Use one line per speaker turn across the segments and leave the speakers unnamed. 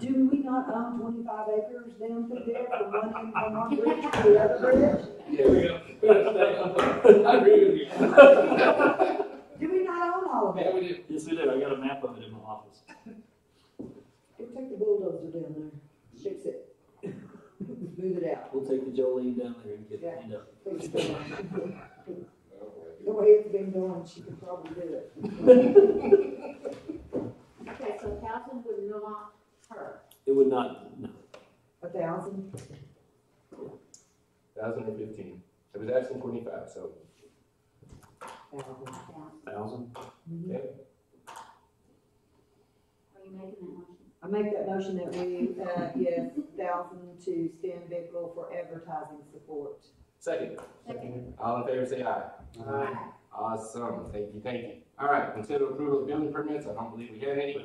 not own twenty-five acres down through there from one end of Vermont Bridge to the other bridge?
Yeah, we got, we gotta stay on that. I agree with you. Yeah,
Do we not own all of it?
we do.
Yes, we do. I got a map of it in my office.
It took the bulldozer down there, fix it. Move it out.
We'll take the Jolene down there and get it cleaned up.
fix it up. The way it's been going, she could probably do it.
Okay, so thousand would not hurt.
It would not, no.
A thousand?
Thousand or fifteen. It was asking twenty-five, so.
Thousand.
Thousand?
Are you making that motion?
I make that motion that we, uh, yes, thousand to Stan Bickel for advertising support.
Second,
Second.
all in favor, say aye.
Aye.
Awesome, thank you, thank you. All right, consider approval of building permits, I don't believe we had any.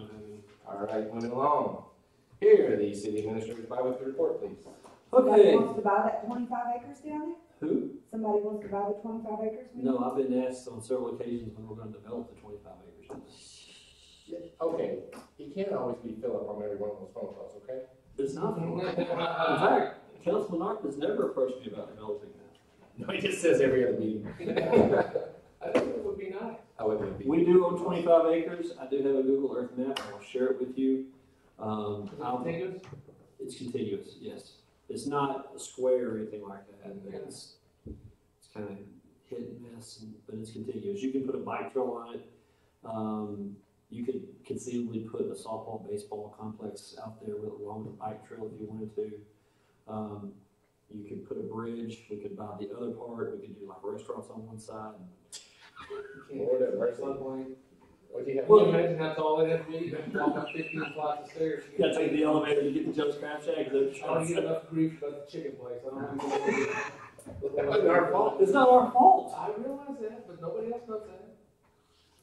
All right, moving along. Here, the city administrator's biweekly report, please.
Somebody
Okay.
wants to buy that twenty-five acres down
Who?
there? Somebody wants to buy the twenty-five acres? maybe?
No, I've been asked on several occasions when we're gonna develop the twenty-five acres.
Okay, he can't always be Philip on every one of those phone calls, okay?
It's not, in fact, Councilman Arkin's never approached me about developing that.
No, he just says every other meeting. I think it would be nice. I would be.
We do own twenty-five acres. I do have a Google Earth map. I'll share it with you. Um, I'll- It's contiguous, yes. It's not a square or anything like that.
Yeah.
It's, it's kind of hit and miss, and- but it's contiguous. You can put a bike trail on it. Um, you could conceivably put a softball, baseball complex out there with, along with a bike trail if you wanted to. Um, you could put a bridge. We could buy the other part. We could do like restaurants on one side.
Lord have mercy. What do you have?
Well,
imagine that's all it has to be, walk up fifteen flights of stairs.
You gotta take the elevator to get to Joe's Crab Shack.
I don't get enough grief about the chicken place, I don't. even-
It's our fault.
It's not our fault.
I realize that, but nobody else knows that.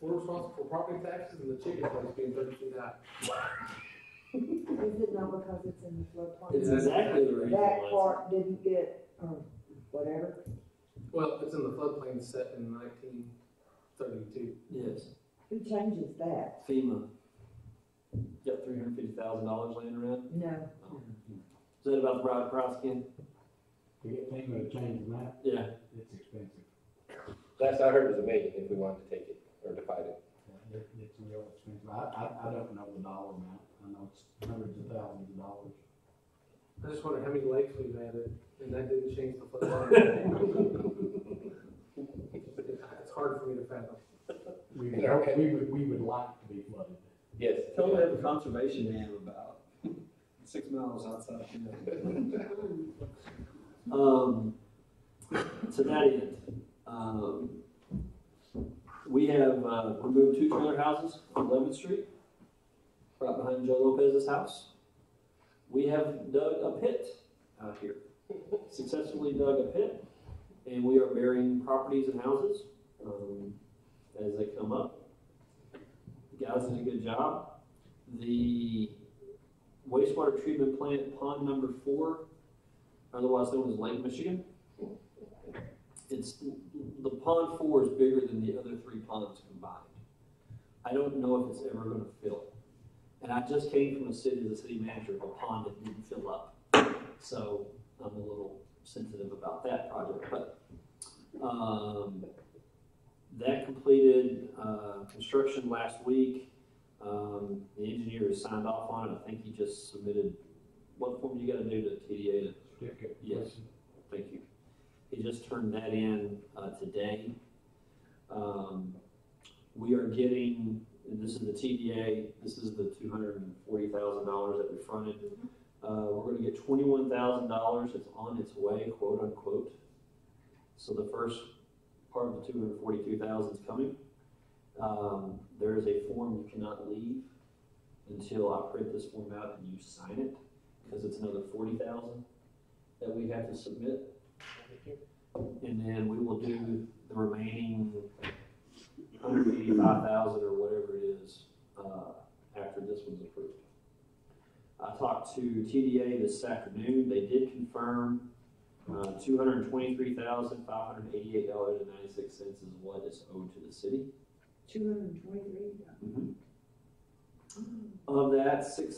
We're responsible for property taxes and the chicken place being thirty-two dollars.
Is it not because it's in the floodplain?
It's exactly the reason why
That
it's-
part didn't get, or whatever.
Well, it's in the floodplain set in nineteen thirty-two.
Yes.
Who changes that?
FEMA. Got three hundred fifty thousand dollars laying around.
No.
Is that about the right price, Ken?
We get FEMA to change the map,
Yeah.
it's expensive.
Last I heard was a million if we wanted to take it or to fight it.
It- It's real expensive. I, I, I don't know the dollar amount. I know it's hundreds of thousands of dollars.
I just wonder how many lakes we've added, and that didn't change the floodplain. It's hard for me to fathom.
We
Yeah, okay.
would, we would, we would like to be flooded.
Yes.
Tell me have a conservation dam about six miles outside of here. Um, to that end, um, we have, uh, removed two trailer houses on Eleventh Street, right behind Joe Lopez's house. We have dug a pit out here, successfully dug a pit, and we are burying properties and houses, um, as they come up. The guys did a good job. The wastewater treatment plant, pond number four, otherwise known as Lake Michigan. It's, the pond four is bigger than the other three ponds combined. I don't know if it's ever gonna fill. And I just came from a city, the city manager of a pond that didn't fill up. So I'm a little sensitive about that project, but, um, that completed, uh, construction last week. Um, the engineer has signed off on it. I think he just submitted, what form you gotta do to TDA to
Certificate.
Yes. Thank you. He just turned that in uh, today. Um, We are getting, and this is the TDA, this is the two hundred and forty thousand dollars that we fronted. Uh, We're gonna get twenty-one thousand dollars, it's on its way, quote unquote. So the first part of the two hundred and forty-two thousand is coming. Um, There is a form you cannot leave until I print this form out and you sign it, because it's another forty thousand that we have to submit. And then we will do the remaining hundred eighty-five thousand or whatever it is, uh, after this one's approved. I talked to TDA this afternoon, they did confirm, uh, two hundred and twenty-three thousand, five hundred and eighty-eight dollars and ninety-six cents is what is owed to the city.
Two hundred and twenty-three
Of that, six